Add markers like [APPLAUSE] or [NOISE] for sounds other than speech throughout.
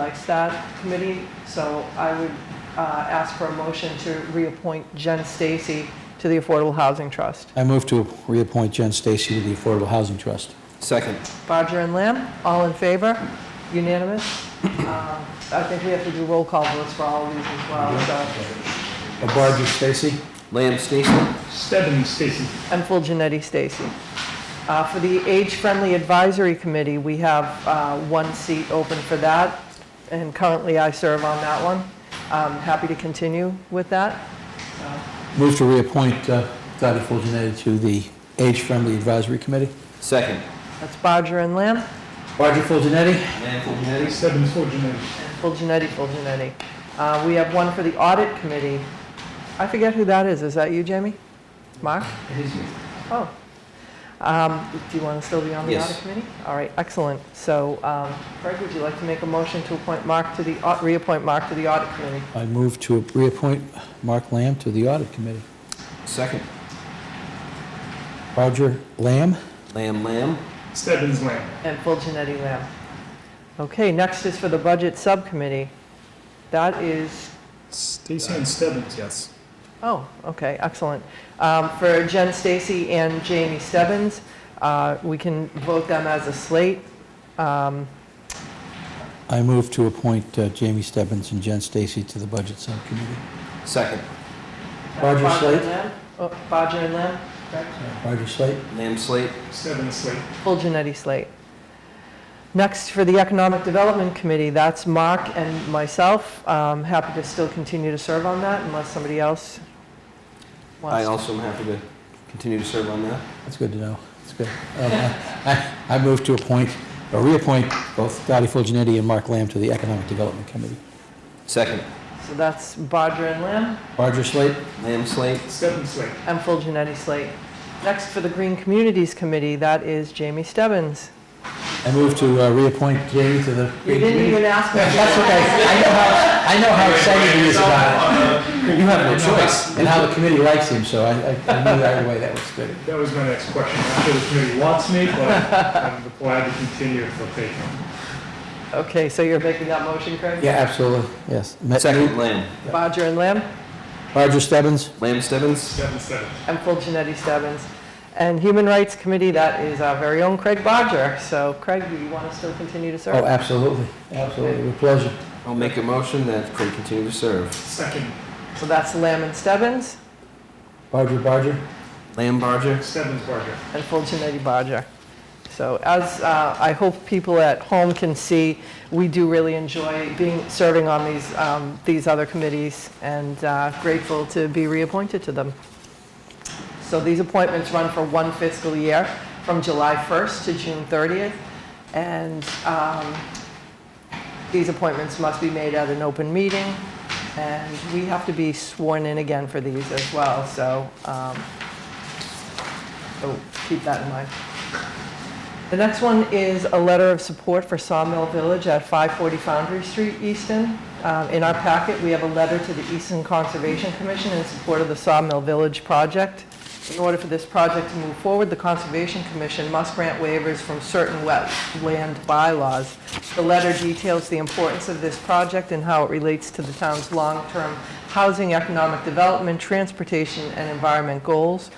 like that committee, so I would uh, ask for a motion to reappoint Jen Stacy to the Affordable Housing Trust. I move to reappoint Jen Stacy to the Affordable Housing Trust. Second. Bodger and Lamb, all in favor? Unanimous? Um, I think we have to do roll call votes for all of these as well, so, Barger Stacy? Lamb Stacy. Stebbins, Stacy. and full Janetti Stacy. Uh, For the Age Friendly Advisory Committee, we have uh, one seat open for that, and currently I serve on that one. I'm happy to continue with that. Move to reappoint uh, Dottie Fulgenetti to the Age Friendly Advisory Committee. Second. That's Bodger and Lamb. Barger Fulgenetti? Lamb Fulgenetti. Stebbins, Forgenetti. Full Genetti, Full Genetti. Uh, We have one for the audit committee. I forget who that is. Is that you, Jamie? Mark? Oh. Um, Do you want to still be on the Yes. audit committee? All right, excellent. So um, Craig, would you like to make a motion to appoint Mark to the, au- reappoint Mark to the audit committee? I move to reappoint Mark Lamb to the Audit Committee. Second. Barger Lamb? Lamb Lamb. Stebbins, Lamb. And Full Genetti Lamb. Okay, next is for the budget subcommittee. That is Stacy and Stebbins, yes. Oh, okay, excellent. Um, For Jen Stacy and Jamie Stebbins, uh, we can vote them as a slate. Um, I move to appoint uh, Jamie Stebbins and Jen Stacy to the Budget Subcommittee. Second. Barger and Slate? Lamb? Oh, Bodger and Lamb? Barger Slate? Lamb Slate. Stebbins, Slate. Full Janetti slate. Next, for the Economic Development Committee, that's Mark and myself. Um, Happy to still continue to serve on that unless somebody else I wants to. also am happy to continue to serve on that. That's good to know. That's good. Um, I I move to appoint, or reappoint both Dottie Fulgenetti and Mark Lamb to the Economic Development Committee. Second. So that's Bodger and Lamb. Barger Slate? Lamb Slate. Stebbins, Slate. I'm full Janetti slate. Next, for the Green Communities Committee, that is Jamie Stebbins. I move to uh, reappoint Jamie to the... You didn't even ask me. [LAUGHS] That's okay. I know how, I know how excited he is about it. [LAUGHS] You have no choice. And how the committee likes him, so I, I I knew right away that was good. That was my next question. I'm sure the committee wants me, but I'm glad to continue if they'll take me. Okay, so you're making that motion, Craig? Yeah, absolutely, yes. Ma- Second. Lamb. Bodger and Lamb, Roger Stebbins, Lamb Stebbins. Stebbins, Stebbins. I'm full Janetti Stebbins. And Human Rights Committee, that is our very own Craig Bodger. So Craig, do you want to still continue to oh, serve? absolutely, absolutely, with pleasure. I'll make a motion that Craig continue to serve. Second, Oh. So that's Lamb and Stebbins Barger, Barger, Lamb Barger. Stebbins, Barger. and full Janetti Bodger. So as uh, I hope people at home can see, we do really enjoy being, serving on these, um, these other committees and uh, grateful to be reappointed to them. So these appointments run for one fiscal year, from July 1st to June 30th. And um, these appointments must be made at an open meeting, and we have to be sworn in again for these as well, so, um, so Oh, keep that in mind. The next one is a letter of support for Sawmill Village at 540 Foundry Street, Easton. Um, In our packet, we have a letter to the Easton Conservation Commission in support of the Sawmill Village project. In order for this project to move forward, the Conservation Commission must grant waivers from certain wetland bylaws. The letter details the importance of this project and how it relates to the town's long-term housing, economic development, transportation, and environment goals.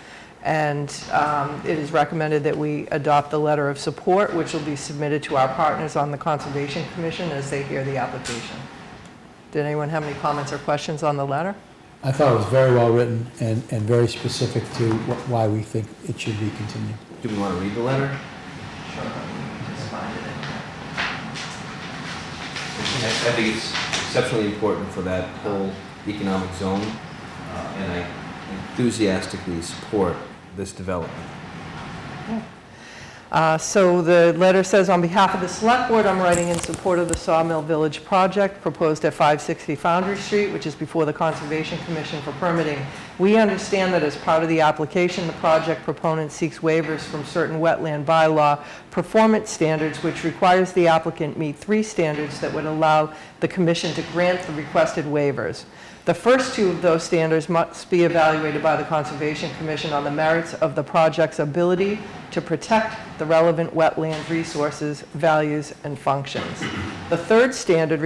And um, it is recommended that we adopt the letter of support, which will be submitted to our partners on the Conservation Commission as they hear the application. Did anyone have any comments or questions on the letter? I thought it was very well written and, and very specific to wh- why we think it should be continued. Do we want to read the letter? Sure, just find it. I I think it's exceptionally important for that whole economic zone, uh, and I enthusiastically support this development. Uh, So the letter says, "On behalf of the Select Board, I'm writing in support of the Sawmill Village project proposed at 560 Foundry Street, which is before the Conservation Commission for permitting. We understand that as part of the application, the project proponent seeks waivers from certain wetland bylaw performance standards, which requires the applicant meet three standards that would allow the commission to grant the requested waivers. The first two of those standards must be evaluated by the Conservation Commission on the merits of the project's ability to protect the relevant wetland resources, values, and functions. The third standard